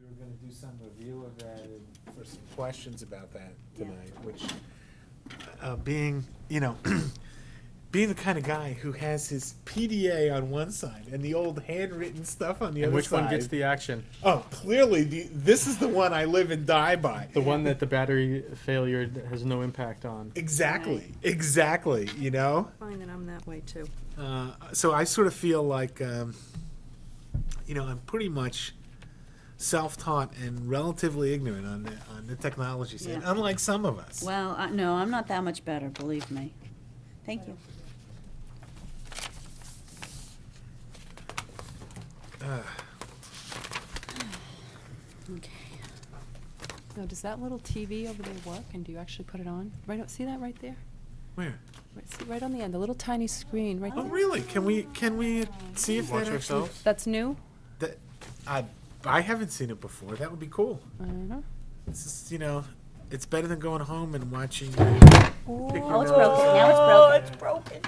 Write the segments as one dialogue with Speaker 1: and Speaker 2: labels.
Speaker 1: we were gonna do some review of that and for some questions about that tonight, which, uh, being, you know, being the kind of guy who has his PDA on one side and the old handwritten stuff on the
Speaker 2: And
Speaker 1: other
Speaker 2: which
Speaker 1: side.
Speaker 2: one gets the action?
Speaker 1: Oh, clearly, the, this is the one I live and die by.
Speaker 2: The one that the battery failure has no impact on.
Speaker 1: Exactly, exactly, you know?
Speaker 3: Fine, then I'm that way too.
Speaker 1: Uh, so I sort of feel like, um, you know, I'm pretty much self-taught and relatively ignorant on the, on the technology side,
Speaker 4: Yeah.
Speaker 1: unlike some of us.
Speaker 4: Well, I- no, I'm not that much better, believe me. Thank you. Okay.
Speaker 5: No, does that little TV over there work, and do you actually put it on? Right, o- see that right there?
Speaker 1: Where?
Speaker 5: Right, see, right on the end, the little tiny screen, right
Speaker 1: Oh,
Speaker 5: there?
Speaker 1: really? Can we can we see if
Speaker 2: Watch
Speaker 1: that actually?
Speaker 2: ourselves?
Speaker 5: That's new?
Speaker 1: That, I I haven't seen it before. That would be cool.
Speaker 5: Uh-huh.
Speaker 1: This is you know, it's better than going home and watching.
Speaker 4: Oh, it's broken, now it's broken.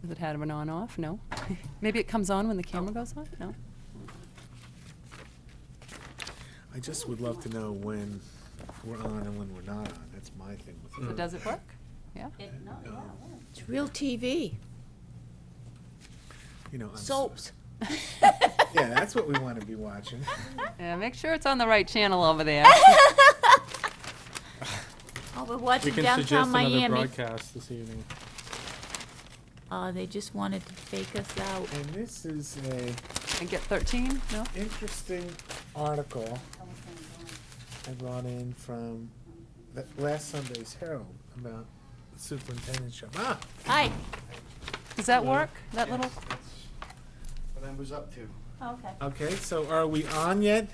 Speaker 5: Does it have an on-off? No? Maybe it comes on when the camera goes on? No?
Speaker 1: I just would love to know when we're on and when we're not on. That's my thing with
Speaker 4: Mm.
Speaker 5: So
Speaker 1: it.
Speaker 5: does it work? Yeah?
Speaker 4: It- no, yeah, it won't.
Speaker 6: It's real TV,
Speaker 1: You know, I'm s-
Speaker 6: soaps.
Speaker 1: Yeah, that's what we want to be watching.
Speaker 5: Yeah, make sure it's on the right channel over there.
Speaker 6: Oh, we're
Speaker 2: We
Speaker 6: watching
Speaker 2: can suggest
Speaker 6: downtown
Speaker 2: another
Speaker 6: Miami.
Speaker 2: broadcast this evening.
Speaker 6: Uh, they just wanted to fake us out.
Speaker 1: And this is a
Speaker 5: And get 13? No?
Speaker 1: interesting article I brought in from the last Sunday's Herald about the superintendent shop. Ah,
Speaker 6: Hi.
Speaker 5: Does that work? That little?
Speaker 7: what I was up to.
Speaker 4: Okay.
Speaker 1: okay. So are we on yet,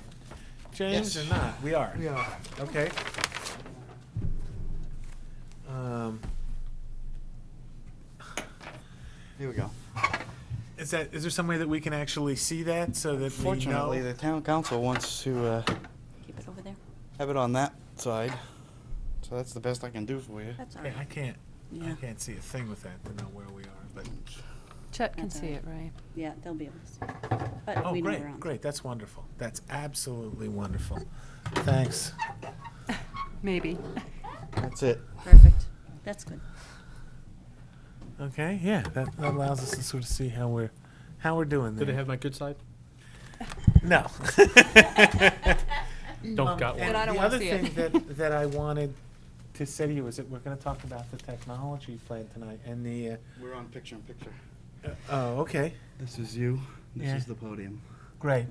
Speaker 1: James,
Speaker 7: Yes.
Speaker 1: or not? We are.
Speaker 7: Yeah.
Speaker 1: Okay. Um,
Speaker 7: Here we go.
Speaker 1: is that is there some way that we can actually see that so that we
Speaker 7: Fortunately,
Speaker 1: know?
Speaker 7: the town council wants to uh,
Speaker 4: Keep it over there.
Speaker 7: have it on that side, so that's the best I can do for you.
Speaker 4: That's all
Speaker 1: Yeah, I
Speaker 4: right.
Speaker 1: can't. I
Speaker 4: Yeah,
Speaker 1: can't see a thing with that to know where we are. But
Speaker 5: Chet can
Speaker 4: That's all
Speaker 5: see
Speaker 4: right.
Speaker 5: it, right?
Speaker 4: yeah, they'll be able to see. it. But
Speaker 1: oh,
Speaker 4: we know
Speaker 1: great,
Speaker 4: we're on.
Speaker 1: great. That's wonderful. That's absolutely wonderful. Thanks.
Speaker 5: Maybe.
Speaker 7: That's it.
Speaker 4: Perfect. That's good.
Speaker 1: Okay, yeah, that, that allows us to sort of see how we're how we're doing there.
Speaker 2: Did it have my good side?
Speaker 1: no?
Speaker 2: Don't got
Speaker 6: Um,
Speaker 1: And
Speaker 2: one.
Speaker 5: Um, I
Speaker 1: the
Speaker 5: don't wanna
Speaker 1: other
Speaker 5: see
Speaker 1: thing
Speaker 5: it.
Speaker 1: that that I wanted to say to you is that we're going to talk about the technology plan tonight and the.
Speaker 7: We're on picture in picture.
Speaker 1: Uh, oh, okay,
Speaker 7: This is you. This
Speaker 1: Yeah.
Speaker 7: is the podium.
Speaker 1: great,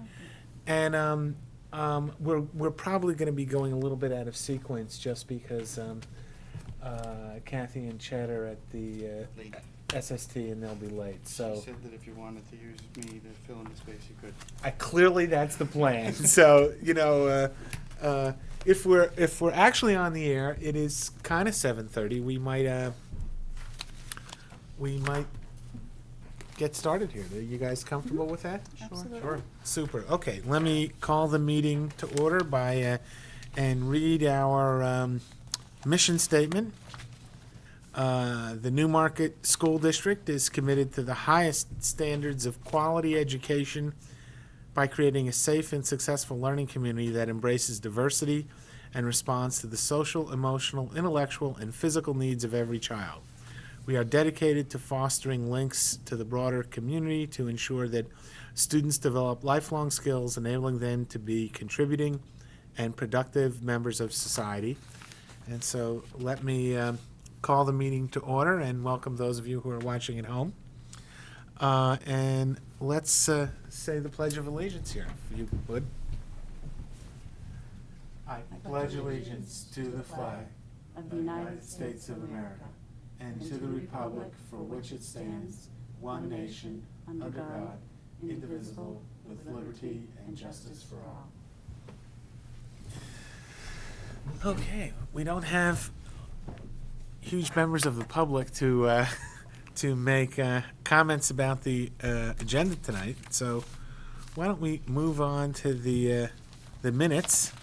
Speaker 1: and um, um, we're we're probably going to be going a little bit out of sequence just because um, uh, Kathy and Chad are at the
Speaker 7: Late.
Speaker 1: uh, SST and they'll be late.
Speaker 7: She
Speaker 1: So
Speaker 7: said that if you wanted to use me to fill in the space, you could.
Speaker 1: I, clearly that's the plan. so you know, uh, uh, if we're if we're actually on the air, it is kind of seven thirty. We might uh, we might get started here. Are you guys comfortable with that?
Speaker 5: Absolutely.
Speaker 1: Super. Okay, let me call the meeting to order by uh, and read our um, mission statement. Uh, the Newmarket School District is committed to the highest standards of quality education by creating a safe and successful learning community that embraces diversity and responds to the social, emotional, intellectual, and physical needs of every child. We are dedicated to fostering links to the broader community to ensure that students develop lifelong skills, enabling them to be contributing and productive members of society. And so let me um, call the meeting to order and welcome those of you who are watching at home. Uh, And let's uh, say the Pledge of Allegiance here, if you would. I pledge allegiance to the flag
Speaker 4: Of the United States of America,
Speaker 1: and
Speaker 4: to the republic for which it stands, one nation, under God, indivisible, with liberty and justice for all.
Speaker 1: Okay, we don't have huge members of the public to, uh, to make uh, comments about the uh, agenda tonight, so why don't we move on to the, uh, the minutes?